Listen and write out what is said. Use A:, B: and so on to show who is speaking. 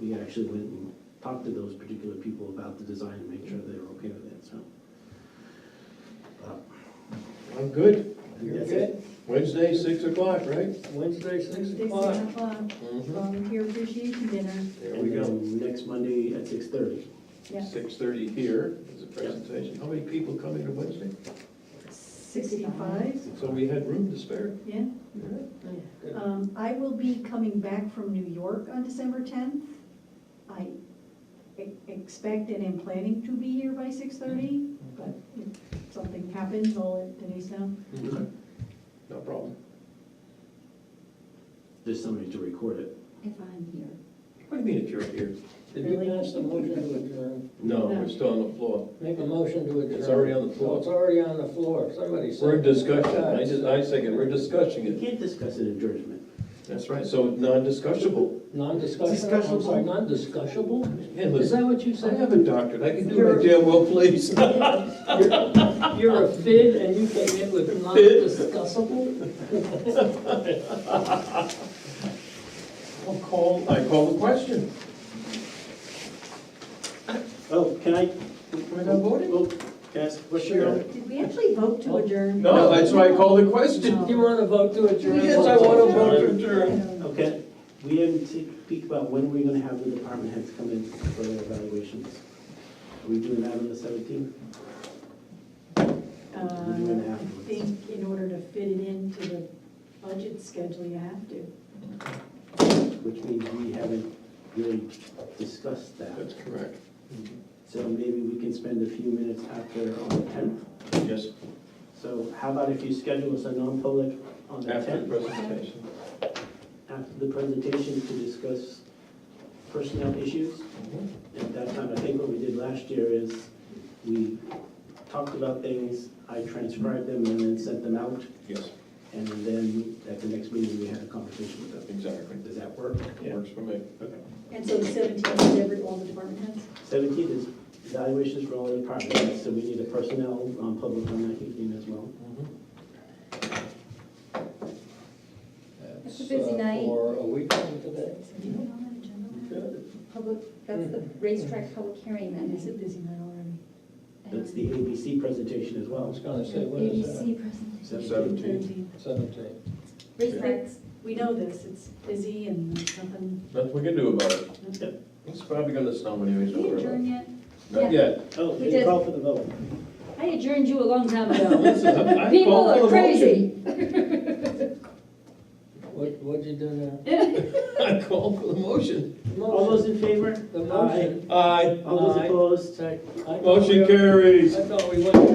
A: we actually went and talked to those particular people about the design and made sure they were okay with it, so.
B: I'm good.
A: That's
C: it.
B: Wednesday, six o'clock, right? Mm-hmm.
C: Wednesday, six
D: Wednesday,
C: o'clock.
D: seven o'clock, uh, volunteer appreciation dinner,
B: There
A: And
B: we go.
A: then next Monday at six thirty.
D: yeah,
B: Six thirty here is a presentation. How many people come in on Wednesday?
D: sixty-five,
B: So we had room to spare.
D: yeah.
C: Yeah. Good.
D: Um, I will be coming back from New York on December tenth. I e- expect and am planning to be here by six thirty, but if something happens, I'll let Denise know.
A: Okay.
B: No problem.
A: There's somebody to record it.
E: If I'm here.
B: What do you mean if you're here?
C: Did we pass the motion to adjourn?
B: No,
D: No.
B: we're still on the floor.
C: Make a motion to adjourn.
B: It's already on the
C: No, it's
B: floor.
C: already on the floor, somebody said.
B: We're in discussion. I just, I second, we're discussing
A: You
B: it.
A: can't discuss an adjournment.
B: That's right. So non-discussable.
C: Non-discussionable, I'm sorry, non-discussionable?
B: Hey,
C: Is
B: listen,
C: that what you
B: I
C: said?
B: have a doctorate. I can do
C: You're-
B: my damn well, please.
C: You're- You're a fid and you came in with non-discussable?
B: I'll call, I call the question.
A: Oh, can I?
B: We're not voting?
A: Oh, Can I ask, what's your?
B: Sure.
D: Did we actually vote to adjourn?
B: Oh. No, that's why I call the question.
C: Do you want to vote to adjourn?
B: Yes, I want to vote to
D: I
B: adjourn.
D: don't know.
A: Okay, we didn't speak about when we're gonna have the department heads come in for their evaluations. Are we doing that on the seventeenth?
D: Uh, I think in order to fit it into the budget schedule, you have to.
A: Which means we haven't really discussed that.
B: That's correct.
A: So maybe we can spend a few minutes after on the tenth.
B: Yes.
A: So how about if you schedule us a non-public on the
B: After the
A: tenth,
B: presentation.
A: after the presentation to discuss personnel issues?
B: Mm-hmm.
A: At that time, I think what we did last year is we talked about things, I transcribed them and then sent them out.
B: Yes,
A: And then at the next meeting, we had a conversation with them.
B: exactly.
A: Does that work?
B: It works for me.
A: Okay.
D: And so the seventeenth is every, all the department heads?
A: Seventeenth is evaluations for all the departments, so we need a personnel um, public on that evening as well.
B: Mm-hmm.
E: It's a busy night.
C: Uh, For a week from today.
E: Do you want an agenda?
C: Good.
E: Public, that's the racetrack public hearing that
D: And it's a
E: night.
D: busy night already.
A: That's the ABC presentation as
C: I
A: well.
C: was going to say, what is that?
E: ABC presentation.
B: Seventeenth.
C: Seventeen.
E: Racetracks,
D: We know this, it's busy and there's nothing.
B: Nothing we can do about it.
A: Yep.
B: It's probably gonna snow anyways.
E: we adjourn yet?
B: Not yet.
A: Oh,
E: We
A: you
E: did.
A: call for the vote.
E: I adjourned you a long time ago.
B: Listen, I- I
E: People
B: call for
E: are
B: the
E: crazy.
C: What, what'd you do now?
B: motion. I call for the motion.
A: All those in favor?
C: The motion.
B: Aye.
A: Aye. All those
C: Aye.
A: opposed?
C: Second.
B: Motion carries.
C: I thought we went through